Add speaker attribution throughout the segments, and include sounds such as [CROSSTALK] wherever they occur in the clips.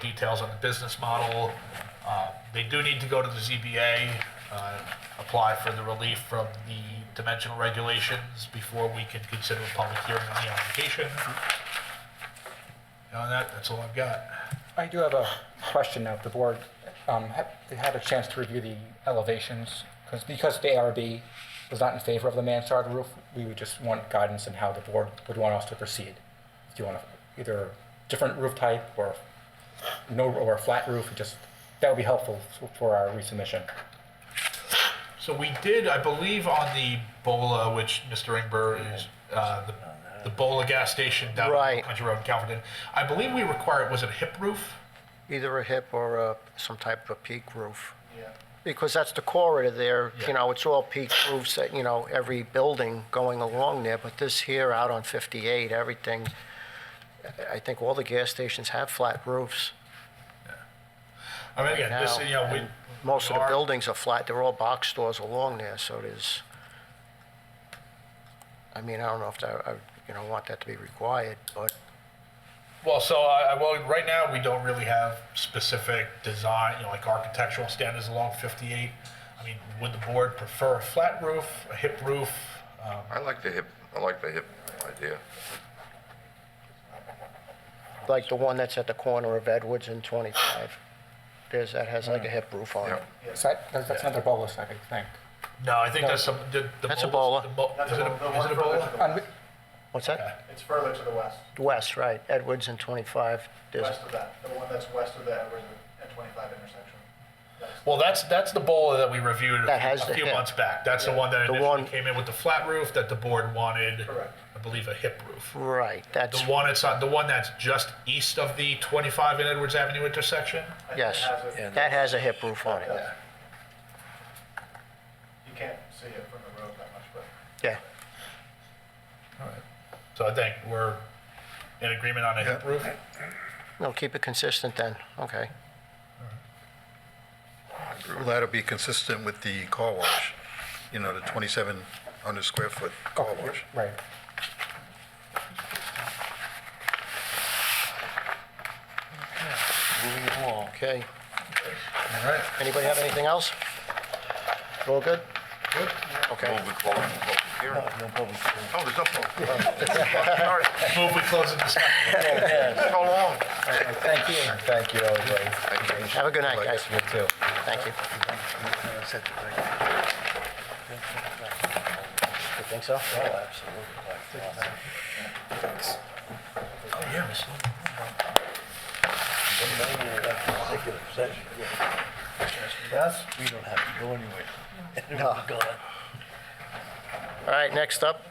Speaker 1: details on the business model. Uh, They do need to go to the ZBA, uh, apply for the relief from the dimensional regulations before we can consider a public hearing on the application. Beyond that, that's all I've got.
Speaker 2: I do have a question of the board. Um, ha- Had a chance to review the elevations, because, because the ARB was not in favor of the mansard roof, we would just want guidance on how the board would want us to proceed. Do you want to, either different roof type, or no, or a flat roof, just, that would be helpful f- for our resubmission.
Speaker 1: So we did, I believe, on the Bola, which Mr. Ingber is, uh, the, the Bola gas station down on
Speaker 3: Right.
Speaker 1: Country Road in Calverton. I believe we required, was it a hip roof?
Speaker 3: Either a hip or a, some type of peak roof. Because that's the corridor there,
Speaker 1: Yeah.
Speaker 3: you know, it's all peak roofs, that, you know, every building going along there, but this here out on 58, everything, I- I think all the gas stations have flat roofs.
Speaker 1: I mean, again, this,
Speaker 3: now,
Speaker 1: you know, we.
Speaker 3: and Most of the
Speaker 1: our-
Speaker 3: buildings are flat, they're all box stores along there, so there's, I mean, I don't know if that, I, you know, want that to be required, but
Speaker 1: Well, so I, I, well, right now, we don't really have specific design, you know, like architectural standards along 58. I mean, would the board prefer a flat roof, a hip roof? Um,
Speaker 4: I like the hip, I like the hip idea.
Speaker 3: like the one that's at the corner of Edwards and 25, there's, that has like a hip roof on it.
Speaker 4: Yeah.
Speaker 2: So that- that's that's another bolus, I think.
Speaker 1: No, I think that's some, the. the
Speaker 3: That's a
Speaker 1: Bolas-
Speaker 3: Bola.
Speaker 1: the Bo-
Speaker 5: That's
Speaker 1: Is it
Speaker 5: the
Speaker 1: a,
Speaker 5: one- the
Speaker 1: is it
Speaker 5: one
Speaker 1: a
Speaker 5: further
Speaker 1: Bola?
Speaker 5: to the-
Speaker 2: And we-
Speaker 3: What's that?
Speaker 5: It's further to the west,
Speaker 3: West, right, Edwards and 25. There's-
Speaker 5: west of that, the one that's west of that, where the N twenty-five intersection.
Speaker 1: Well, that's, that's the bowl that we reviewed
Speaker 3: That has
Speaker 1: a
Speaker 3: the
Speaker 1: few
Speaker 3: hip.
Speaker 1: months back. That's the one that
Speaker 3: The
Speaker 1: initially
Speaker 3: one-
Speaker 1: came in with the flat roof that the board wanted,
Speaker 5: Correct.
Speaker 1: I believe, a hip roof.
Speaker 3: Right,
Speaker 1: The
Speaker 3: that's,
Speaker 1: one it's on, the one that's just east of the 25 and Edwards Avenue intersection.
Speaker 5: I think it
Speaker 3: yes,
Speaker 5: has a-
Speaker 3: that has a hip roof on it,
Speaker 5: Yeah. You can't see it from the road that much, but
Speaker 3: yeah.
Speaker 1: So I think we're in agreement on a hip roof.
Speaker 3: No, keep it consistent then, okay.
Speaker 6: That'll be consistent with the car wash, you know, the 2,700 square foot car wash.
Speaker 2: Right.
Speaker 3: Okay,
Speaker 1: All right.
Speaker 3: anybody have anything else? All good? Okay,
Speaker 4: Move the close the public hearing. Oh, there's no public. [LAUGHS] Sorry,
Speaker 1: Move we close the discussion.
Speaker 4: it's so long.
Speaker 2: Thank you. Thank you, everybody.
Speaker 3: have a good night, guys,
Speaker 2: You too.
Speaker 3: thank you. You think so? Oh, absolutely.
Speaker 1: Oh, yeah, Miss Lou.
Speaker 7: We don't have to go anywhere. [LAUGHS] Everyone's gone.
Speaker 3: All right, next up,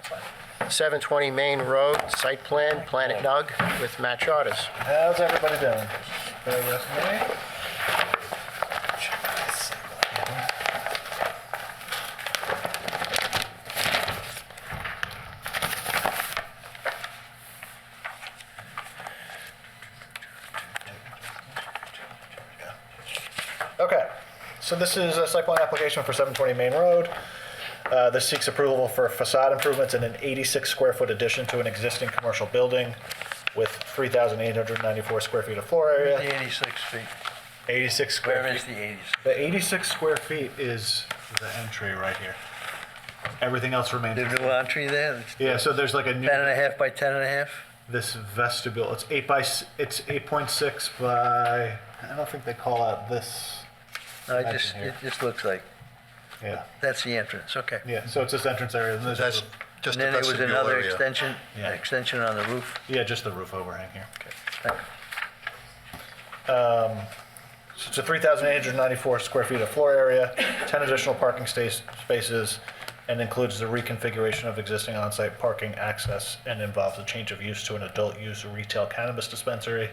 Speaker 3: 720 Main Road, site plan, Planet Nug with Matt Charters.
Speaker 7: How's everybody doing? Very well, man?
Speaker 5: Okay, so this is a site plan application for 720 Main Road. Uh, This seeks approval for facade improvements and an 86-square-foot addition to an existing commercial building with 3,894 square feet of floor area,
Speaker 7: The 86 feet.
Speaker 5: 86
Speaker 7: Where
Speaker 5: square
Speaker 7: is
Speaker 5: feet.
Speaker 7: the 86?
Speaker 5: The 86 square feet is the entry right here. Everything else
Speaker 7: The
Speaker 5: remains.
Speaker 7: new entry there, it's
Speaker 5: Yeah, so there's like a new,
Speaker 7: 10 and a half by 10 and a half?
Speaker 5: this vestibule, it's 8 by, s- it's 8.6 by, I don't think they call out this,
Speaker 7: No,
Speaker 5: Imagine
Speaker 7: it just,
Speaker 5: here.
Speaker 7: it just looks like,
Speaker 5: yeah.
Speaker 7: that's the entrance, okay.
Speaker 5: Yeah, so it's this entrance area, and this
Speaker 6: That's
Speaker 5: is,
Speaker 6: just
Speaker 7: And
Speaker 6: the
Speaker 7: then there was
Speaker 6: vestibule
Speaker 7: another
Speaker 6: area.
Speaker 7: extension,
Speaker 5: Yeah.
Speaker 7: an extension on the roof.
Speaker 5: yeah, just the roof overhang here. Um,
Speaker 7: Thank you.
Speaker 5: So it's a 3,894 square feet of floor area, 10 additional parking sta- spaces, and includes the reconfiguration of existing on-site parking access and involves a change of use to an adult-use retail cannabis dispensary.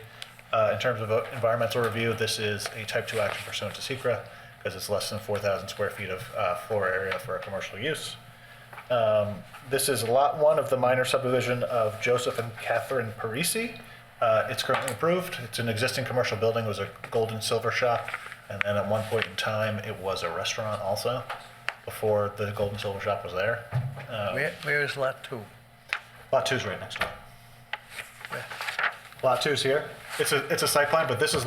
Speaker 5: Uh, In terms of uh, environmental review, this is a type-two action pursuant to secra because it's less than 4,000 square feet of uh, floor area for a commercial use. Um, This is Lot 1 of the minor subdivision of Joseph and Catherine Parisi. Uh, It's currently approved. It's an existing commercial building, it was a gold and silver shop, and then at one point in time, it was a restaurant also, before the gold and silver shop was there. Uh,
Speaker 7: Where, where is lot two?
Speaker 5: Lot 2's right next door. Lot 2's here. It's a, it's a site plan, but this is